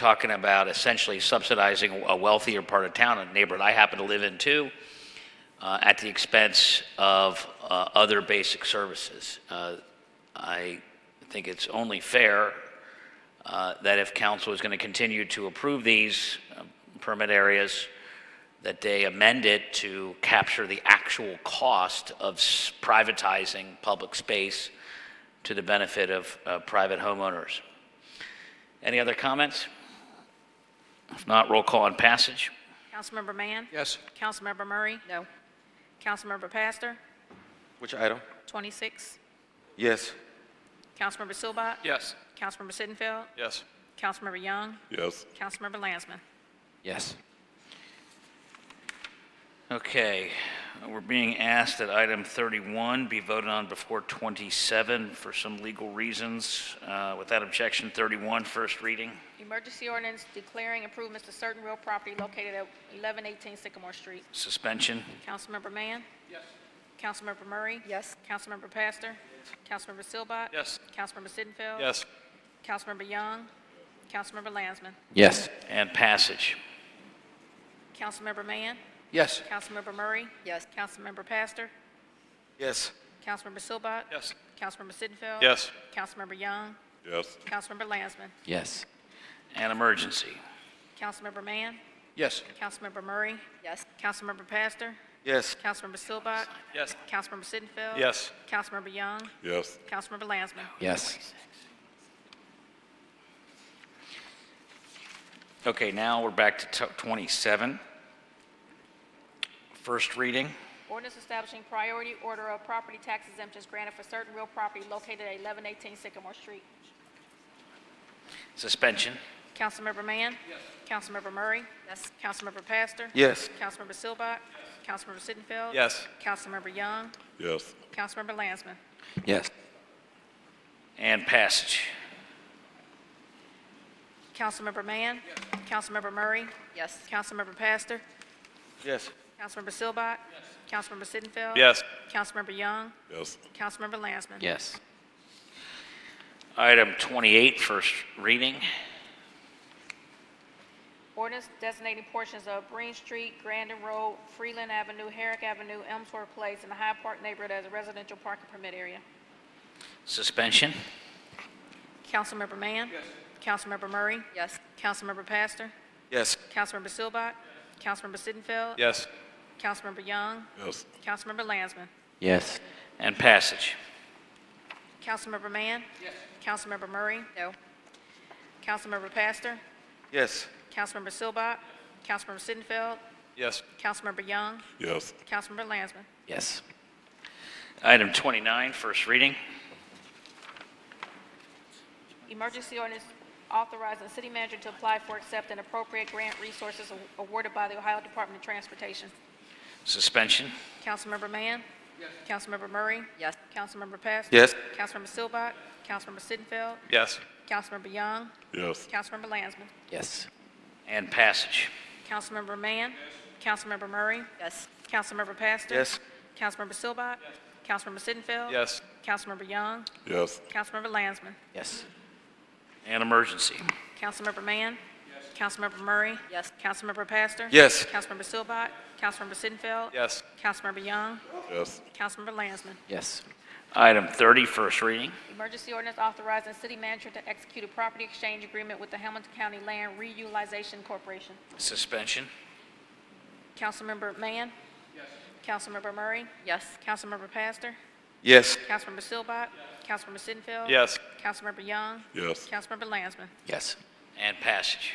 talking about essentially subsidizing a wealthier part of town, a neighborhood I happen to live in too, uh, at the expense of uh, other basic services. Uh, I think it's only fair uh, that if council is going to continue to approve these uh, permit areas, that they amend it to capture the actual cost of s- privatizing public space to the benefit of uh, private homeowners. Any other comments? If not, roll call on passage. Councilmember Mann? Yes. Councilmember Murray? No. Councilmember Pastor? Which item? 26. Yes. Councilmember Silbott? Yes. Councilmember Sittenfeld? Yes. Councilmember Young? Yes. Councilmember Lansman? Yes. Okay, we're being asked that item 31 be voted on before 27 for some legal reasons. Uh, Without objection, 31, first reading. Emergency ordinance declaring improvements to certain real property located at 1118 Sycamore Street. Suspension, Councilmember Mann? Yes. Councilmember Murray? Yes. Councilmember Pastor? Councilmember Silbott? Yes. Councilmember Sittenfeld? Yes. Councilmember Young? Councilmember Lansman? Yes. and passage. Councilmember Mann? Yes. Councilmember Murray? Yes. Councilmember Pastor? Yes. Councilmember Silbott? Yes. Councilmember Sittenfeld? Yes. Councilmember Young? Yes. Councilmember Lansman? Yes. And emergency. Councilmember Mann? Yes. Councilmember Murray? Yes. Councilmember Pastor? Yes. Councilmember Silbott? Yes. Councilmember Sittenfeld? Yes. Councilmember Young? Yes. Councilmember Lansman? Yes. Okay, now we're back to t- 27. First reading, Ordinance establishing priority order of property tax exemptions granted for certain real property located at 1118 Sycamore Street. suspension, Councilmember Mann? Yes. Councilmember Murray? Yes. Councilmember Pastor? Yes. Councilmember Silbott? Councilmember Sittenfeld? Yes. Councilmember Young? Yes. Councilmember Lansman? Yes. and passage. Councilmember Mann? Yes. Councilmember Murray? Yes. Councilmember Pastor? Yes. Councilmember Silbott? Yes. Councilmember Sittenfeld? Yes. Councilmember Young? Yes. Councilmember Lansman? Yes. Item 28, first reading, Ordinance designating portions of Green Street, Grandin Road, Freeland Avenue, Herrick Avenue, Elmsworth Place, and the Hyde Park neighborhood as a residential parking permit area. suspension, Councilmember Mann? Yes. Councilmember Murray? Yes. Councilmember Pastor? Yes. Councilmember Silbott? Councilmember Sittenfeld? Yes. Councilmember Young? Yes. Councilmember Lansman? Yes. and passage. Councilmember Mann? Yes. Councilmember Murray? No. Councilmember Pastor? Yes. Councilmember Silbott? Councilmember Sittenfeld? Yes. Councilmember Young? Yes. Councilmember Lansman? Yes. Item 29, first reading, Emergency ordinance authorizing the city manager to apply for, accept, and appropriate grant resources awarded by the Ohio Department of Transportation. suspension, Councilmember Mann? Yes. Councilmember Murray? Yes. Councilmember Pastor? Yes. Councilmember Silbott? Councilmember Sittenfeld? Yes. Councilmember Young? Yes. Councilmember Lansman? Yes. and passage. Councilmember Mann? Councilmember Murray? Yes. Councilmember Pastor? Yes. Councilmember Silbott? Councilmember Sittenfeld? Yes. Councilmember Young? Yes. Councilmember Lansman? Yes. And emergency, Councilmember Mann? Yes. Councilmember Murray? Yes. Councilmember Pastor? Yes. Councilmember Silbott? Councilmember Sittenfeld? Yes. Councilmember Young? Yes. Councilmember Lansman? Yes. Item 30, first reading, Emergency ordinance authorizing city manager to execute a property exchange agreement with the Hamilton County Land Reutilization Corporation. suspension, Councilmember Mann? Yes. Councilmember Murray? Yes. Councilmember Pastor? Yes. Councilmember Silbott? Councilmember Sittenfeld? Yes. Councilmember Young? Yes. Councilmember Lansman? Yes. and passage.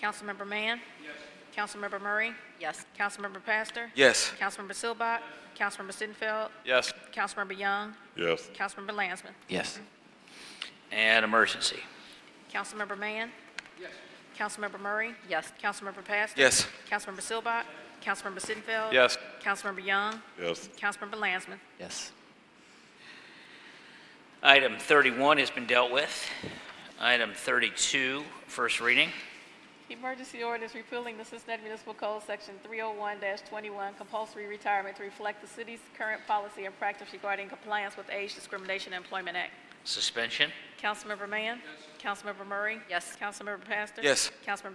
Councilmember Mann? Yes. Councilmember Murray? Yes. Councilmember Pastor? Yes. Councilmember Silbott? Councilmember Sittenfeld? Yes. Councilmember Young? Yes. Councilmember Lansman? Yes. And emergency, Councilmember Mann? Yes. Councilmember Murray? Yes. Councilmember Pastor? Yes. Councilmember Silbott? Councilmember Sittenfeld? Yes. Councilmember Young? Yes. Councilmember Lansman? Yes. Item 31 has been dealt with. Item 32, first reading, Emergency ordinance repealing the Cincinnati Municipal Code, Section 301-21, compulsory retirement to reflect the city's current policy and practice regarding compliance with Age Discrimination and Employment Act. suspension, Councilmember Mann? Councilmember Murray? Yes. Councilmember Pastor? Yes. Councilmember